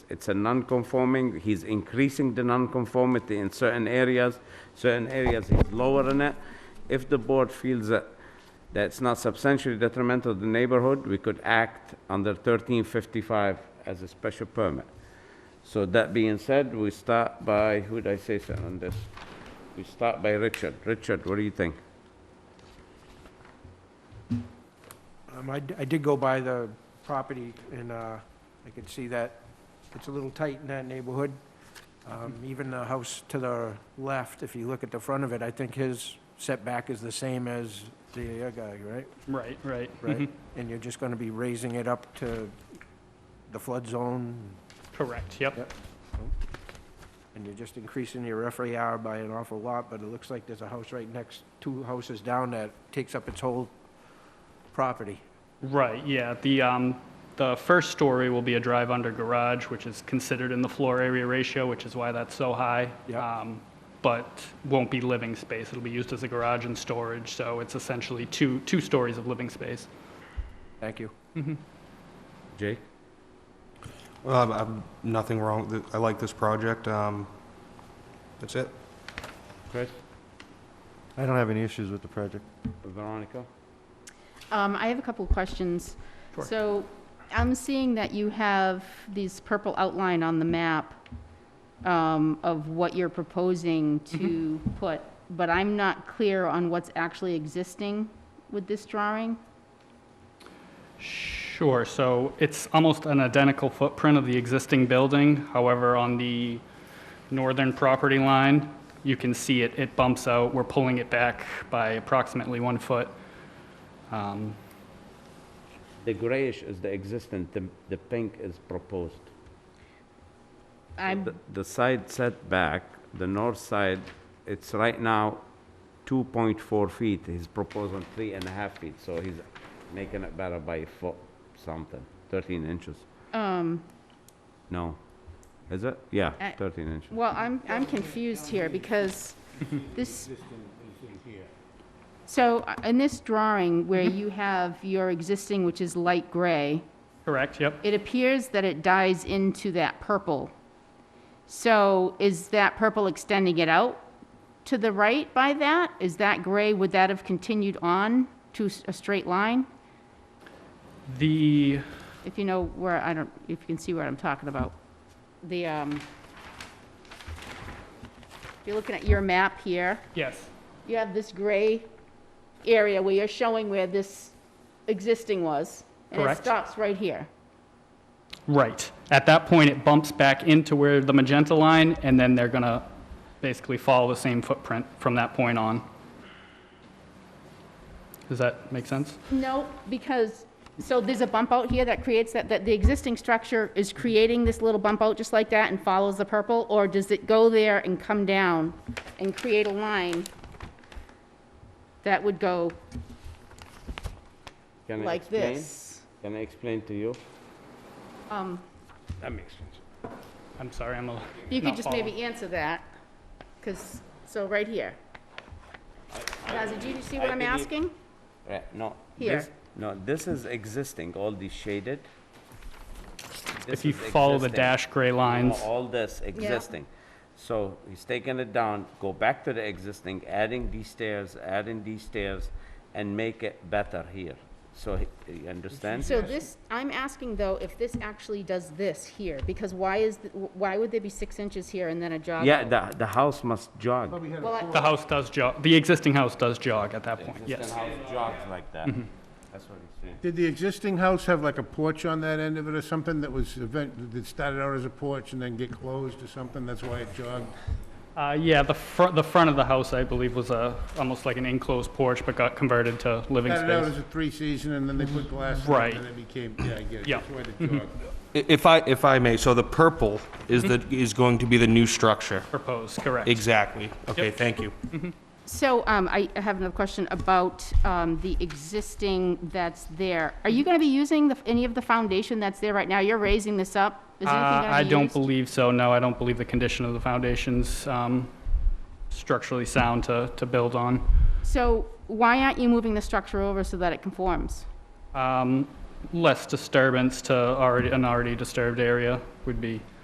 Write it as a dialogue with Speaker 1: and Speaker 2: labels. Speaker 1: it's a non-conforming, he's increasing the non-conformity in certain areas, certain areas he's lowering it. If the board feels that that's not substantially detrimental to the neighborhood, we could act under 1355 as a special permit. So that being said, we start by, who'd I say something on this? We start by Richard. Richard, what do you think?
Speaker 2: Um, I, d- I did go by the property and, uh, I could see that it's a little tight in that neighborhood. Um, even the house to the left, if you look at the front of it, I think his setback is the same as the other guy, right?
Speaker 3: Right, right.
Speaker 2: Right? And you're just gonna be raising it up to the flood zone,
Speaker 3: Correct, yep.
Speaker 2: Yep. and you're just increasing your FAR by an awful lot, but it looks like there's a house right next, two houses down that takes up its whole property.
Speaker 3: Right, yeah. The, um, the first story will be a drive-under garage, which is considered in the floor area ratio, which is why that's so high.
Speaker 2: Yeah.
Speaker 3: Um, But won't be living space. It'll be used as a garage and storage, so it's essentially two, two stories of living space.
Speaker 2: Thank you.
Speaker 1: Jake?
Speaker 4: Well, i I'm nothing wrong, with it. I like this project, um, that's it.
Speaker 1: Chris?
Speaker 5: I don't have any issues with the project.
Speaker 1: Veronica?
Speaker 6: Um, I have a couple of questions.
Speaker 3: Sure.
Speaker 6: So I'm seeing that you have these purple outline on the map um, of what you're proposing to put, but I'm not clear on what's actually existing with this drawing.
Speaker 3: Sure, so it's almost an identical footprint of the existing building. However, on the northern property line, you can see it, it bumps out. We're pulling it back by approximately one foot. Um,
Speaker 1: The grayish is the existing, the, the pink is proposed.
Speaker 6: I'm,
Speaker 1: The- The side setback, the north side, it's right now 2.4 feet. He's proposing three and a half feet, so he's making it better by foot something, 13 inches.
Speaker 6: um,
Speaker 1: No, is it? Yeah,
Speaker 6: I-
Speaker 1: 13 inches.
Speaker 6: well, I'm, I'm confused here because this. So uh, in this drawing where you have your existing, which is light gray,
Speaker 3: Correct, yep.
Speaker 6: it appears that it dies into that purple. So is that purple extending it out to the right by that? Is that gray, would that have continued on to s- a straight line?
Speaker 3: The,
Speaker 6: If you know where, I don't, if you can see what I'm talking about. The, um, if you're looking at your map here,
Speaker 3: yes,
Speaker 6: you have this gray area where you're showing where this existing was. And
Speaker 3: Correct.
Speaker 6: it stops right here.
Speaker 3: right. At that point, it bumps back into where the magenta line, and then they're gonna basically follow the same footprint from that point on. Does that make sense?
Speaker 6: No, because, so there's a bump out here that creates that, that the existing structure is creating this little bump out just like that and follows the purple? Or does it go there and come down and create a line that would go
Speaker 1: Can I
Speaker 6: like
Speaker 1: explain?
Speaker 6: this?
Speaker 1: Can I explain to you?
Speaker 6: Um,
Speaker 1: That makes sense.
Speaker 3: I'm sorry, I'm a.
Speaker 6: You could
Speaker 3: not
Speaker 6: just
Speaker 3: following.
Speaker 6: maybe answer that, because, so right here. Now, did you see
Speaker 1: I e-
Speaker 6: what I'm
Speaker 1: believe-
Speaker 6: asking?
Speaker 1: Right, Uh, no.
Speaker 6: Here.
Speaker 1: this- No, this is existing, all these shaded.
Speaker 3: If you follow the dash gray lines,
Speaker 1: All this existing. So he's taking it down, go back to the existing, adding these stairs, adding these stairs, and make it better here. So he- you understand?
Speaker 6: So this, I'm asking though, if this actually does this here, because why is, th- why would there be six inches here and then a jog?
Speaker 1: Yeah,
Speaker 6: out?
Speaker 1: the, the house must jog.
Speaker 6: Well, I-
Speaker 3: the house does jog, the existing house does jog at that point, yes.
Speaker 1: Existing house jogs like that. That's what he's saying.
Speaker 7: Did the existing house have like a porch on that end of it or something that was event, that started out as a porch and then get closed or something? That's why it jogged?
Speaker 3: Uh, yeah, the front, the front of the house, I believe, was a, almost like an enclosed porch, but got converted to living
Speaker 7: Started out
Speaker 3: space.
Speaker 7: as a three-season and then they put glass in
Speaker 3: Right.
Speaker 7: it and it became, yeah, I get it.
Speaker 3: Yeah. Mm-hmm.
Speaker 7: That's why it jogged.
Speaker 4: I- If I, if I may, so the purple is the, is going to be the new structure.
Speaker 3: Proposed, correct.
Speaker 4: Exactly. Okay,
Speaker 3: Yep.
Speaker 4: thank you.
Speaker 6: So um, I I have another question about um, the existing that's there. Are you going to be using the- any of the foundation that's there right now? You're raising this up? Is
Speaker 3: Uh,
Speaker 6: anything gonna
Speaker 3: I
Speaker 6: be
Speaker 3: don't
Speaker 6: used?
Speaker 3: believe so, no, I don't believe the condition of the foundation's, um, structurally sound to, to build on.
Speaker 6: So why aren't you moving the structure over so that it conforms?
Speaker 3: Um, less disturbance to already, an already disturbed area would be